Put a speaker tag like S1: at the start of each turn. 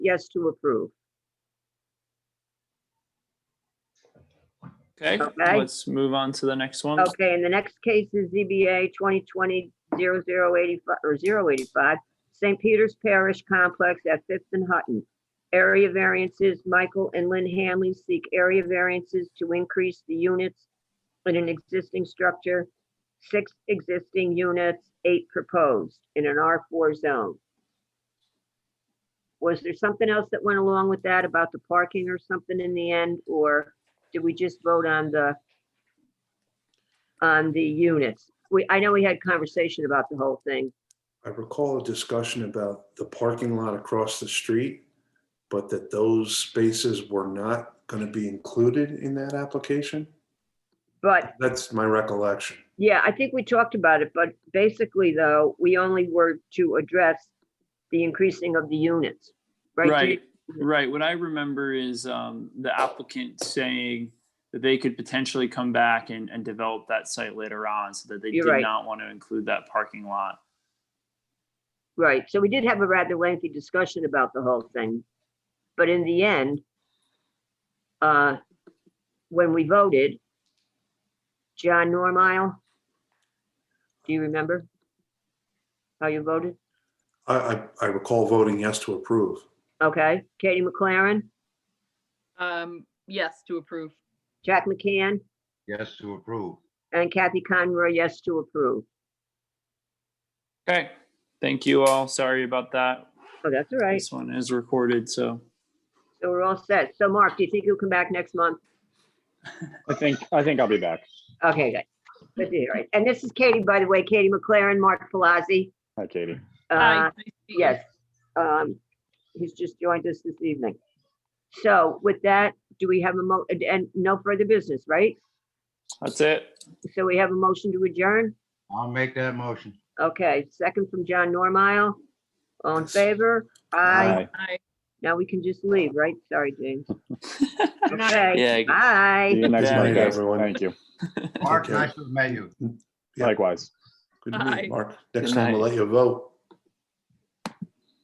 S1: yes to approve.
S2: Okay,
S1: Okay.
S2: let's move on to the next one.
S1: Okay, and the next case is ZBA 2020 0085 or 085, St. Peter's Parish Complex at Fifth and Hutton. Area variances, Michael and Lynn Hanley seek area variances to increase the units in an existing structure, six existing units, eight proposed in an R4 zone. Was there something else that went along with that about the parking or something in the end, or did we just vote on the on the units. We, I know we had conversation about the whole thing.
S3: I recall a discussion about the parking lot across the street, but that those spaces were not going to be included in that application.
S1: But
S3: That's my recollection.
S1: yeah, I think we talked about it, but basically though, we only were to address the increasing of the units, right?
S2: Right, right. What I remember is um, the applicant saying that they could potentially come back and, and develop that site later on, so that they
S1: You're
S2: did
S1: right.
S2: not want to include that parking lot.
S1: Right, so we did have a rather lengthy discussion about the whole thing. But in the end, uh, when we voted, John Normile, do you remember how you voted?
S3: I, I, I recall voting yes to approve.
S1: Okay, Katie McLaren,
S4: Um, yes, to approve.
S1: Jack McCann,
S5: Yes, to approve.
S1: And Kathy Conroy, yes to approve.
S2: Okay, thank you all. Sorry about that.
S1: Oh, that's all right.
S2: This one is recorded, so
S1: So we're all set. So Mark, do you think you'll come back next month?
S6: I think, I think I'll be back.
S1: Okay, good. Good to hear it. And this is Katie, by the way, Katie McLaren, Mark Palazzi.
S6: Hi, Katie.
S4: Hi,
S1: Uh,
S4: nice to meet you.
S1: Yes. Um, he's just joined us this evening. So with that, do we have a mo, and- and no further business, right?
S2: that's it.
S1: So we have a motion to adjourn?
S5: I'll make that motion.
S1: Okay, second from John Normile. All in favor?
S3: Aye.
S1: Aye.
S4: Hi.
S1: Now we can just leave, right? Sorry, James.
S2: Yeah,
S1: Okay,
S2: I-
S6: See you
S1: bye.
S6: next
S2: Yeah.
S6: month, guys.
S3: Everyone.
S6: Thank you.
S5: Mark,
S3: Okay.
S5: nice to meet you.
S3: Yeah.
S6: Likewise.
S3: Good to meet
S4: Aye.
S3: you, Mark. Next
S2: Good
S3: time we'll
S2: night.
S3: let you vote.